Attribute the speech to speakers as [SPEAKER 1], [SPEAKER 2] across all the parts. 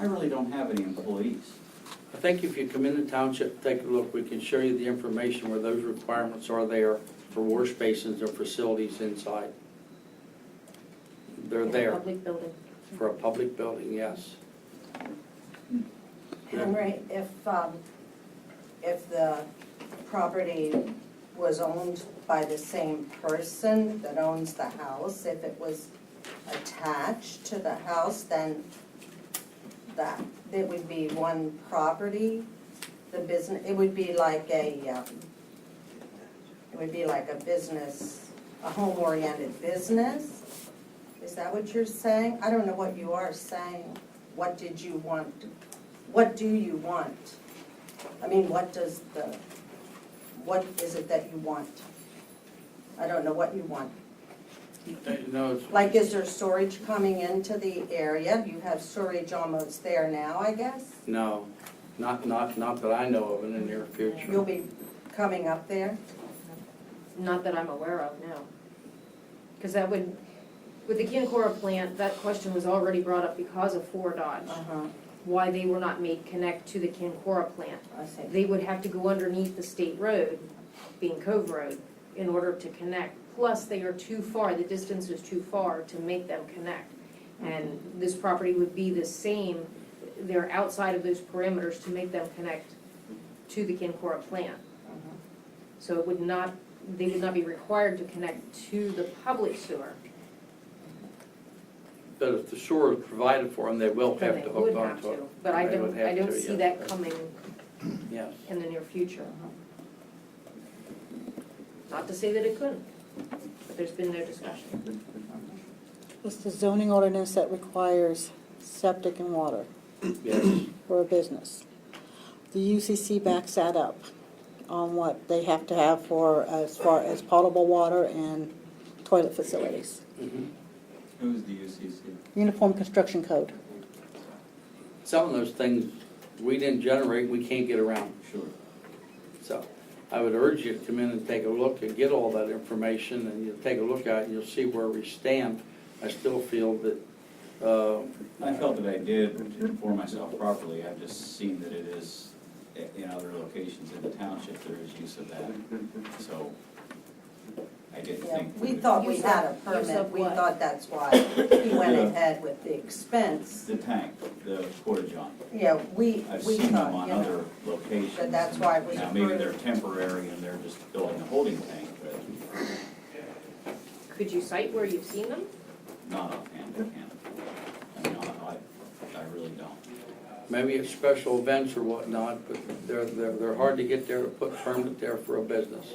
[SPEAKER 1] I really don't have any employees.
[SPEAKER 2] I think if you come in the township, take a look, we can show you the information where those requirements are there for wash basins or facilities inside. They're
[SPEAKER 3] in a
[SPEAKER 2] there
[SPEAKER 3] Public building.
[SPEAKER 2] for a public building, yes.
[SPEAKER 4] Henry, if, um, if the property was owned by the same person that owns the house, if it was attached to the house, then that, it would be one property, the business, it would be like a, um, it would be like a business, a home-oriented business? Is that what you're saying? I don't know what you are saying. What did you want to what do you want? I mean, what does the, what is it that you want? I don't know what you want.
[SPEAKER 2] No, it's-
[SPEAKER 4] Like, is there storage coming into the area? You have storage almost there now, I guess?
[SPEAKER 2] no, not, not, not that I know of in the near
[SPEAKER 4] You'll
[SPEAKER 2] future.
[SPEAKER 4] be coming up there?
[SPEAKER 3] Not that I'm aware of, no. Because that would, with the Kinkora plant, that question was already brought up because of Four Dodge,
[SPEAKER 4] Uh-huh,
[SPEAKER 3] why they were not made connect to the Kinkora plant.
[SPEAKER 4] I see.
[SPEAKER 3] They would have to go underneath the state road, being Cove Road, in order to connect. Plus, they are too far, the distance is too far to make them connect. And this property would be the same, they're outside of those parameters to make them connect to the Kinkora plant.
[SPEAKER 4] Uh-huh.
[SPEAKER 3] So it would not, they would not be required to connect to the public sewer.
[SPEAKER 2] But if the sewer is provided for them, they will
[SPEAKER 3] then
[SPEAKER 2] have to
[SPEAKER 3] they would
[SPEAKER 2] hook
[SPEAKER 3] have
[SPEAKER 2] onto it.
[SPEAKER 3] But I
[SPEAKER 2] They would
[SPEAKER 3] don't,
[SPEAKER 2] have
[SPEAKER 3] I don't
[SPEAKER 2] to,
[SPEAKER 3] see
[SPEAKER 2] yes.
[SPEAKER 3] that coming
[SPEAKER 2] Yes.
[SPEAKER 3] in the near future.
[SPEAKER 4] Uh-huh.
[SPEAKER 3] Not to say that it couldn't, but there's been no discussion.
[SPEAKER 5] It's the zoning ordinance that requires septic and water
[SPEAKER 2] Yes.
[SPEAKER 5] for a business. The UCC backs that up on what they have to have for, as far as potable water and toilet facilities.
[SPEAKER 2] Mhm.
[SPEAKER 1] Who's the UCC?
[SPEAKER 5] Uniform Construction Code.
[SPEAKER 2] Some of those things we didn't generate, we can't get around.
[SPEAKER 1] Sure.
[SPEAKER 2] So I would urge you to come in and take a look and get all that information, and you'll take a look at it, and you'll see where we stand. I still feel that, uh,
[SPEAKER 1] I felt that I did inform myself properly, I've just seen that it is, i- in other locations in the township, there is use of that, so I didn't
[SPEAKER 4] Yeah,
[SPEAKER 1] think.
[SPEAKER 4] we
[SPEAKER 1] would-
[SPEAKER 4] thought we
[SPEAKER 3] Use
[SPEAKER 4] had a
[SPEAKER 3] of- use
[SPEAKER 4] permit,
[SPEAKER 3] of
[SPEAKER 4] we
[SPEAKER 3] what?
[SPEAKER 4] thought that's why he went
[SPEAKER 1] Yeah.
[SPEAKER 4] ahead with the expense.
[SPEAKER 1] The tank, the porta john,
[SPEAKER 4] Yeah, we,
[SPEAKER 1] I've
[SPEAKER 4] we
[SPEAKER 1] seen them
[SPEAKER 4] thought,
[SPEAKER 1] on
[SPEAKER 4] you know.
[SPEAKER 1] other locations.
[SPEAKER 4] But that's why it was
[SPEAKER 1] Now, maybe they're
[SPEAKER 4] approved.
[SPEAKER 1] temporary and they're just building a holding tank, but
[SPEAKER 3] Could you cite where you've seen them?
[SPEAKER 1] not offhand, I can't. I mean, I, I- I really don't.
[SPEAKER 2] maybe it's special events or whatnot, but they're, they're, they're hard to get there, to put permit there for a business.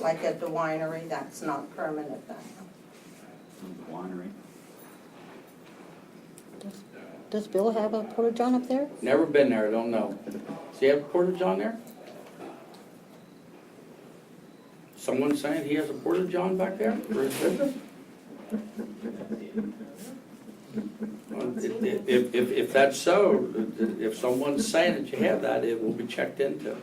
[SPEAKER 4] Like at the winery, that's not permanent then.
[SPEAKER 1] The Winery.
[SPEAKER 5] Does- Does Bill have a porta-john up there?
[SPEAKER 2] Never been there, don't know. Does he have a portage on there? Someone saying he has a portage on back there for his business? Well, If, if- if, if that's so, if someone's saying that you have that, it will be checked into.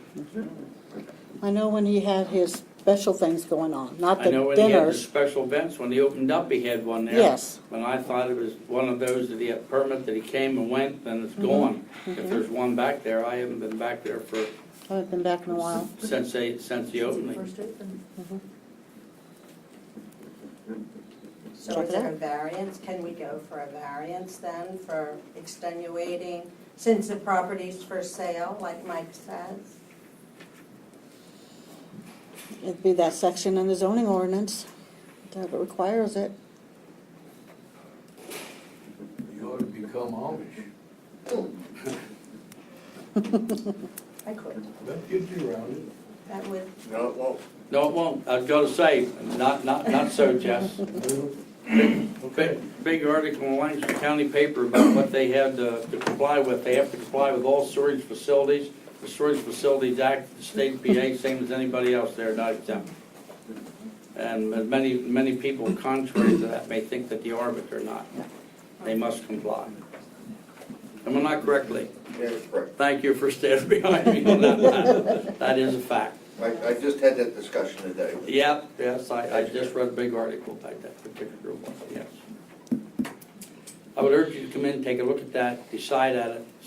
[SPEAKER 5] I know when he had his special things going on, not
[SPEAKER 2] I
[SPEAKER 5] the
[SPEAKER 2] know when he had the
[SPEAKER 5] dinners.
[SPEAKER 2] special events, when he opened up, he had one there.
[SPEAKER 5] Yes,
[SPEAKER 2] When I thought it was one of those that he had permit, that he came and went, then it's gone. If
[SPEAKER 5] Mhm.
[SPEAKER 2] there's one back there, I haven't been back there for,
[SPEAKER 5] I haven't been back in a while.
[SPEAKER 2] since they, since the opening.
[SPEAKER 3] First open.
[SPEAKER 5] Mhm.
[SPEAKER 4] So
[SPEAKER 5] Check
[SPEAKER 4] is
[SPEAKER 5] it
[SPEAKER 4] there a
[SPEAKER 5] out.
[SPEAKER 4] variance? Can we go for a variance then for extenuating, since the property's for sale, like Mike says?
[SPEAKER 5] It'd be that section in the zoning ordinance that requires it.
[SPEAKER 6] You ought to become Amish.
[SPEAKER 4] I could.
[SPEAKER 6] That gets you around it.
[SPEAKER 4] That would,
[SPEAKER 7] No, it won't.
[SPEAKER 2] No, it won't. I was gonna say, not, not, not so, Jess. Big, big article in Lancaster County paper about what they had to to comply with. They have to comply with all storage facilities. The Storage Facilities Act, the state PA, same as anybody else there, not exempt. And many, many people contrary to that may think that they are, but they're not. They must comply. Am I not correctly?
[SPEAKER 7] Yeah, it's right.
[SPEAKER 2] Thank you for standing behind me on that. matter. That is a fact.
[SPEAKER 7] I, I just had that discussion today.
[SPEAKER 2] Yep, yes, I, I just read a big article about that particular one, yes. I would urge you to come in, take a look at that, decide at it,